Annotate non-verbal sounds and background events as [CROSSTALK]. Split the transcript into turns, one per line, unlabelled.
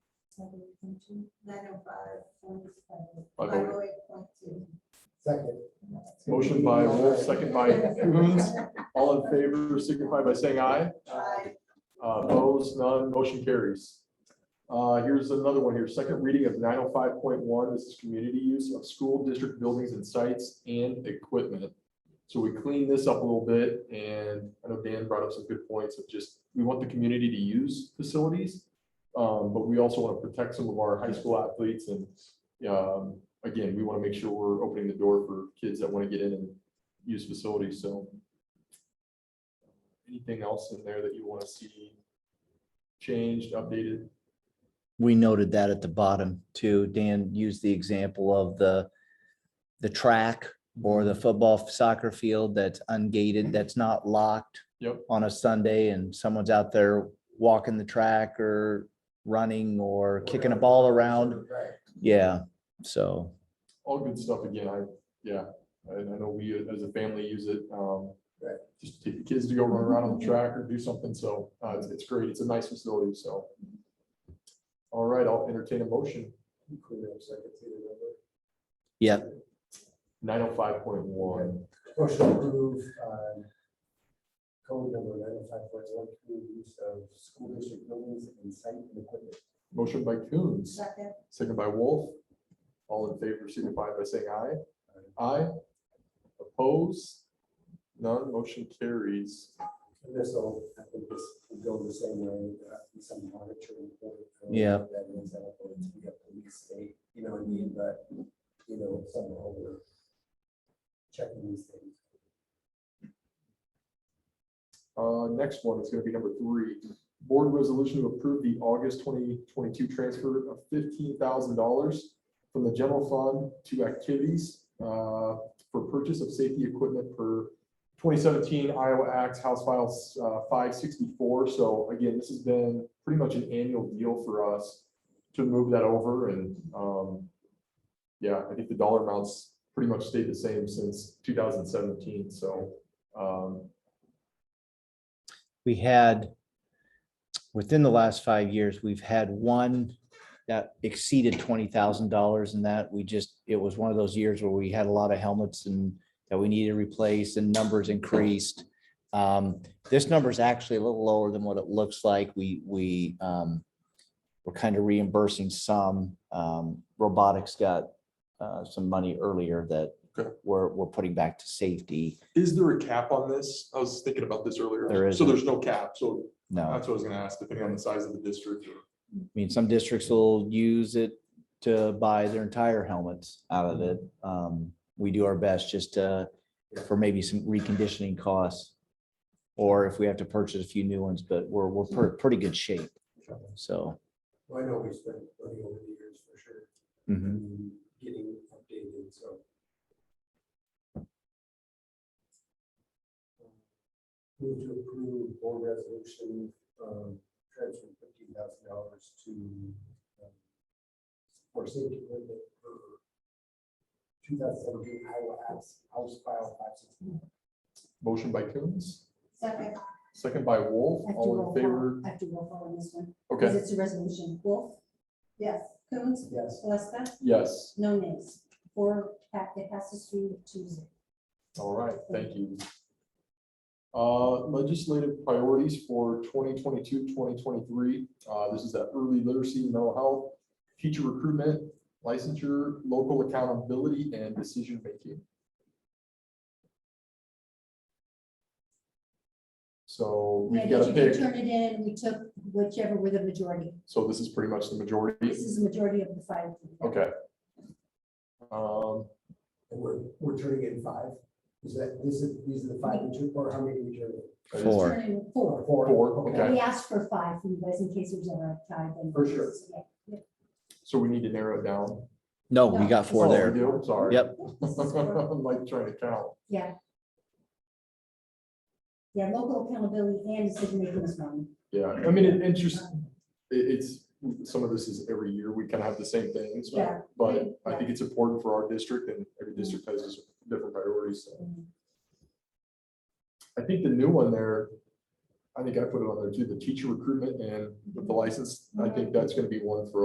By Bowie.
Second.
Motion by Wolf, second by Coons. All in favor signify by saying aye. Uh, Opposed, none, motion carries. Uh, Here's another one here. Second reading of nine oh five point one. This is community use of school district buildings and sites and equipment. So we cleaned this up a little bit and I know Dan brought up some good points of just, we want the community to use facilities. um, But we also want to protect some of our high school athletes and um, again, we want to make sure we're opening the door for kids that want to get in and use facilities, so. Anything else in there that you want to see changed, updated?
we noted that at the bottom too. Dan used the example of the, the track or the football soccer field that's ungated, that's not locked
Yep.
on a Sunday and someone's out there walking the track or running or kicking a ball around.
Right.
Yeah, so
All good stuff again, I, yeah, I I know we as a family use it. um,
Right.
Just take the kids to go run around on the track or do something, so uh, it's, it's great, it's a nice facility, so. All right, I'll entertain a motion, nine oh five point one.
Motion to approve, um, code number nine oh five point one, community use of school district buildings and site and equipment.
Motion by Coons. Second by Wolf. All in favor signify by saying aye. Aye. Oppose? None. Motion carries.
And This will, I think this will go the same way, uh, in some monitoring. for it. I don't know
Yeah.
if That means that it's be a police state, you know what I mean, but, you know, somehow we're checking these things.
Uh, next one is gonna be number three. Board resolution to approve the August twenty twenty-two transfer of fifteen thousand dollars from the general fund to activities, uh, for purchase of safety equipment per twenty seventeen Iowa Acts House Files, uh, five sixty-four. So again, this has been pretty much an annual deal for us to move that over and, um, yeah, I think the dollar amounts pretty much stayed the same since two thousand seventeen, so, um,
we had, within the last five years, we've had one that exceeded twenty thousand dollars and that we just, it was one of those years where we had a lot of helmets and that we needed replaced and numbers increased. Um, this number is actually a little lower than what it looks like. We, we, um, we're kind of reimbursing some, um, robotics got, uh, some money earlier that
Okay.
we're, we're putting back to safety.
Is there a cap on this? I was thinking about this earlier.
There
So
isn't.
there's no cap, so
No.
that's what I was gonna ask, depending on the size of the district.
I mean, some districts will use it to buy their entire helmets out of it. Um, we do our best just to, for maybe some reconditioning costs. Or if we have to purchase a few new ones, but we're, we're per- pretty good shape, so.
Well, I know we spent money over the years for sure,
mhm.
and getting updated, so. Move to approve board resolution, um, transfer fifteen thousand dollars to um, for safety equipment for two thousand seventeen Iowa House, House File five sixty.
Motion by Coons,
Second.
second by Wolf,
I have to
all
roll
in
call.
favor.
I have to roll call on this one. Because
Okay,
it's a resolution. Wolf? Yes. Coons?
Yes,
Gillespie?
yes,
No names. Four, pa- it passes through two zero.
all right, thank you. Uh, legislative priorities for 2022-2023. Uh, this is that early literacy, mental health, teacher recruitment, licensure, local accountability and decision making. So
Yeah,
we've got to
you
pick.
can turn it in. We took whichever were the majority.
So this is pretty much the
This
majority.
is the majority of the five.
Okay. Um,
and we're, we're turning in five, is that, this is, these are the five, we took, or how many we turned in?
I just-
Four.
Turn in Four.
Four, okay.
We asked for five for you guys in case there's ever a tie. then-
For sure.
Yeah.
So we need to narrow it down. [LAUGHS]
No, we got
Oh,
four
we
there.
do? Sorry.
Yep,
This is
[LAUGHS]
four.
I'm like trying to count.
Yeah. Yeah, local accountability and decision making is one.
Yeah, I mean, it, it's just, it- it's, some of this is every year, we kind of have the same things. but-
Yeah. Mm-hmm.
But I think it's important for our district and every district has its different priorities. so. I think the new one there,
Mm-hmm.
I think I put it on there too, the teacher recruitment and with the license, I think that's gonna be one for